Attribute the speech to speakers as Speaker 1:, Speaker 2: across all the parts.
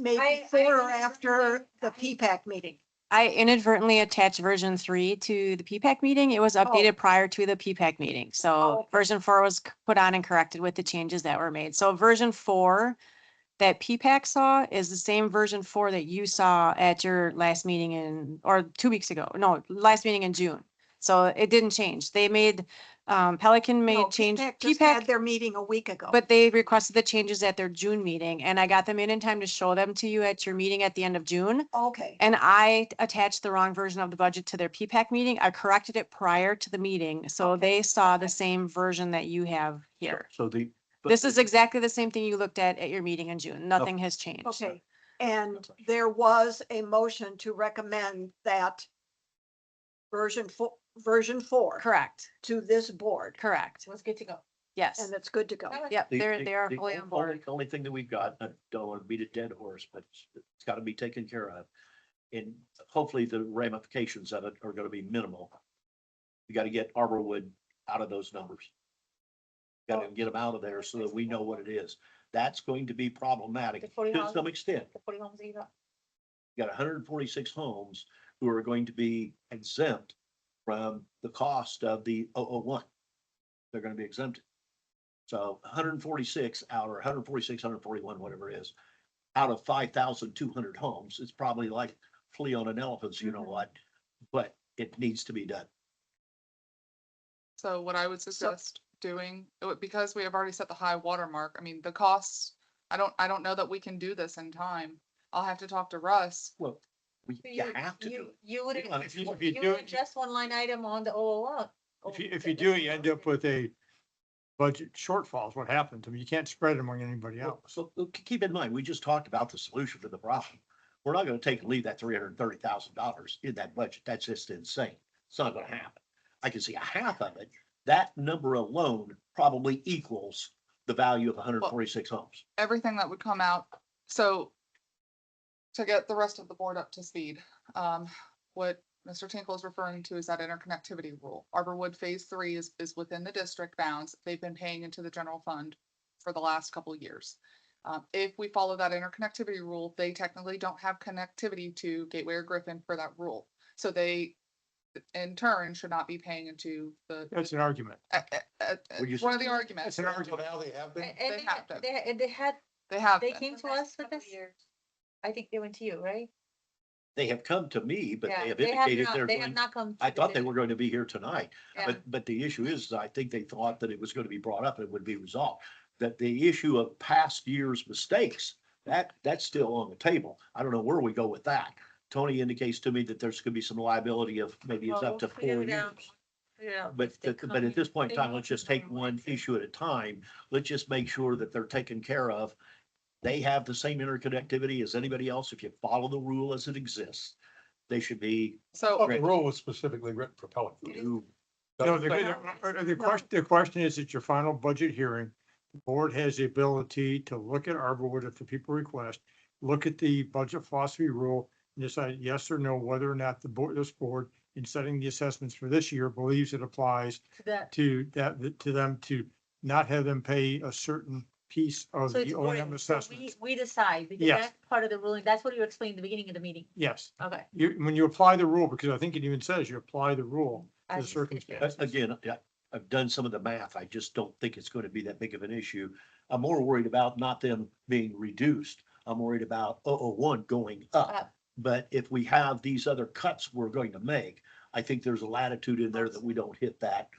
Speaker 1: maybe
Speaker 2: I-
Speaker 1: before
Speaker 2: I-
Speaker 1: or after the P-PAC meeting.
Speaker 3: I inadvertently attached version three to the PPAC meeting. It was
Speaker 1: Oh.
Speaker 3: updated prior to the PPAC meeting. So version four was c- put on and corrected with the changes that were made. So version four that PPAC saw is the same version four that you saw at your last meeting in, or two weeks ago, no, last meeting in June. So it didn't change. They made, um, Pelican
Speaker 1: No,
Speaker 3: made change.
Speaker 1: PPAC just
Speaker 3: PPAC
Speaker 1: had their meeting a week ago.
Speaker 3: But they requested the changes at their June meeting and I got them in in time to show them to you at your meeting at the end of June.
Speaker 1: Okay,
Speaker 3: And I attached the wrong version of the budget to their PPAC meeting. I corrected it prior to the meeting, so they saw the same version that you have here.
Speaker 4: So the. but
Speaker 3: This is exactly the same thing you looked at at your meeting in June. Nothing has changed.
Speaker 1: okay. And there was a motion to recommend that version four, version four
Speaker 3: Correct,
Speaker 1: to this board,
Speaker 3: correct.
Speaker 2: was good to go.
Speaker 3: Yes.
Speaker 1: and it's good to go.
Speaker 3: Yep,
Speaker 4: the-
Speaker 3: they're,
Speaker 4: the-
Speaker 3: they are
Speaker 4: the
Speaker 3: fully on
Speaker 4: only-
Speaker 3: board.
Speaker 4: Only thing that we've got, I don't want to beat a dead horse, but it's- it's got to be taken care of. And hopefully the ramifications of it are going to be minimal. We got to get Arborwood out of those numbers. Got to get them out of there so that we know what it is. That's going to be
Speaker 2: The
Speaker 4: problematic
Speaker 2: forty
Speaker 4: to
Speaker 2: homes,
Speaker 4: some extent.
Speaker 2: the forty homes that you got.
Speaker 4: You got hundred and forty-six homes who are going to be exempt from the cost of the one. oh one. They're gonna be exempted. So hundred and forty-six out or 146, 141, whatever it is, out of five thousand two hundred homes, it's probably like flea on an elephant's, you know
Speaker 3: Mhm.
Speaker 4: what? But it needs to be done.
Speaker 5: So what I would suggest doing, it would- because we have already set the high water mark, I mean, the costs, I don't, I don't know that we can do this in time. I'll have to talk to Russ.
Speaker 4: Well, we, you have to do
Speaker 2: You,
Speaker 4: it.
Speaker 2: you would,
Speaker 6: Yeah, if you-
Speaker 2: you
Speaker 6: if you do
Speaker 2: would
Speaker 6: it, you-
Speaker 2: adjust one line item on the OOL.
Speaker 6: If you, if you do, you end up with a budget shortfalls, what happens, I mean, you can't spread them on anybody
Speaker 4: Well,
Speaker 6: else.
Speaker 4: So uh, k- keep in mind, we just talked about the solution to the problem. We're not gonna take and leave that three hundred and thirty thousand dollars in that budget. That's just insane. It's not gonna happen. I can see a half of it. That number alone probably equals the value of hundred and forty-six homes.
Speaker 5: everything that would come out, so to get the rest of the board up to speed, um, what Mr. Tinkle is referring to is that interconnectivity rule. Arborwood Phase Three is, is within the district bounds. They've been paying into the general fund for the last couple of years. Um, if we follow that interconnectivity rule, they technically don't have connectivity to Gateway or Griffin for that rule. So they, in turn, should not be paying into the,
Speaker 6: That's an argument.
Speaker 5: uh, uh, uh,
Speaker 4: Well, you-
Speaker 5: one of the
Speaker 6: That's
Speaker 5: arguments.
Speaker 6: an argument, how they have been.
Speaker 2: And, and
Speaker 5: They have to.
Speaker 2: they- they, and they had,
Speaker 5: They have.
Speaker 2: they
Speaker 5: been.
Speaker 2: came to us with this, I think they went to you, right?
Speaker 4: They have come to me, but
Speaker 2: Yeah,
Speaker 4: they have indicated
Speaker 2: not-
Speaker 4: they're
Speaker 2: They have
Speaker 4: going,
Speaker 2: not come. to
Speaker 4: I
Speaker 2: the
Speaker 4: thought they
Speaker 2: district.
Speaker 4: were going to be here tonight.
Speaker 2: Yeah.
Speaker 4: But, but the issue is, I think they thought that it was going to be brought up and would be resolved, that the issue of past year's mistakes, that, that's still on the table. I don't know where we go with that. Tony indicates to me that there's going to be some liability of maybe it's
Speaker 2: Well,
Speaker 4: up to
Speaker 2: we'll figure
Speaker 4: four
Speaker 2: it out.
Speaker 4: years.
Speaker 2: Figure it out.
Speaker 4: But,
Speaker 2: They
Speaker 4: but- but
Speaker 2: come
Speaker 4: at this point in
Speaker 2: they
Speaker 4: time,
Speaker 2: know
Speaker 4: let's
Speaker 2: what
Speaker 4: just
Speaker 2: they're
Speaker 4: take
Speaker 2: doing.
Speaker 4: one issue at a time. Let's just make sure that they're taken care of. They have the same interconnectivity as anybody else. If you follow the rule as it exists, they should be.
Speaker 5: So.
Speaker 7: Well, The rule was specifically written for Pelican.
Speaker 4: you-
Speaker 6: No, the, uh, the- the question, the question is, at your final budget hearing, the board has the ability to look at Arborwood if the people request, look at the budget philosophy rule, and decide yes or no, whether or not the board, this board, in setting the assessments for this year, believes it applies
Speaker 2: To that,
Speaker 6: to that, to them to not have them pay a certain piece of
Speaker 2: so it's
Speaker 6: the O and M
Speaker 2: boring. So we,
Speaker 6: assessment.
Speaker 2: we decide, because
Speaker 6: Yes.
Speaker 2: that's part of the ruling, that's what you explained at the beginning of the meeting,
Speaker 6: Yes,
Speaker 2: okay.
Speaker 6: you, when you apply the rule, because I think it even says you apply the rule
Speaker 2: I
Speaker 6: to the
Speaker 2: just did that.
Speaker 6: circumstance.
Speaker 4: A- Again, I- I've done some of the math. I just don't think it's going to be that big of an issue. I'm more worried about not them being reduced. I'm worried about 001 going up.
Speaker 2: Up.
Speaker 4: But if we have these other cuts we're going to make, I think there's a latitude in there that we don't hit that.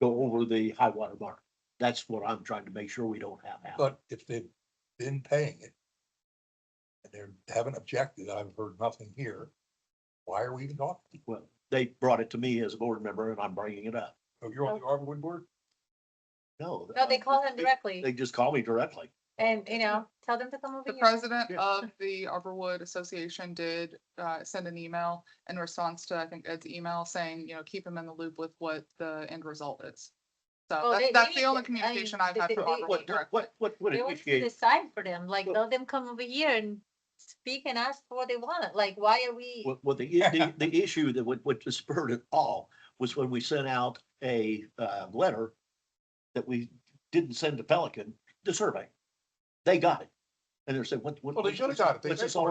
Speaker 4: Go over the high water mark. That's what I'm trying to make sure we don't have happen.
Speaker 7: But if they've been paying it. And they haven't objected, I've heard nothing here. Why are we even talking?
Speaker 4: Well, they brought it to me as a board member and I'm bringing it up.
Speaker 7: Oh, you're on the Arborwood board?
Speaker 4: No.
Speaker 2: No, they call him
Speaker 4: they-
Speaker 2: directly
Speaker 4: They just call me directly.
Speaker 2: and, you know, tell them to come over
Speaker 5: The
Speaker 2: here.
Speaker 5: president
Speaker 4: Yeah.
Speaker 5: of the Arborwood Association did uh, send an email in response to, I think, Ed's email saying, you know, keep him in the loop with what the end result is.
Speaker 2: Well, they-
Speaker 5: So that's,
Speaker 2: they
Speaker 5: that's
Speaker 2: need
Speaker 5: the only
Speaker 2: to- I mean,
Speaker 5: communication I've
Speaker 2: they-
Speaker 5: had
Speaker 2: they-
Speaker 5: from
Speaker 2: they-
Speaker 5: Arborwood
Speaker 4: What,
Speaker 5: directly.
Speaker 4: what, what would
Speaker 2: They want to
Speaker 4: initiate?
Speaker 2: decide for them, like,
Speaker 4: Well-
Speaker 2: let them come over here and speak and ask for what they want, like, why are we?
Speaker 4: Well, well, the, the, the issue that would, would spurred it all was when we sent out a, uh, letter that we didn't send to Pelican, the survey. They got it. And they're saying, what? what-
Speaker 7: Well, they should've got it. They
Speaker 4: what's this
Speaker 7: said-
Speaker 4: all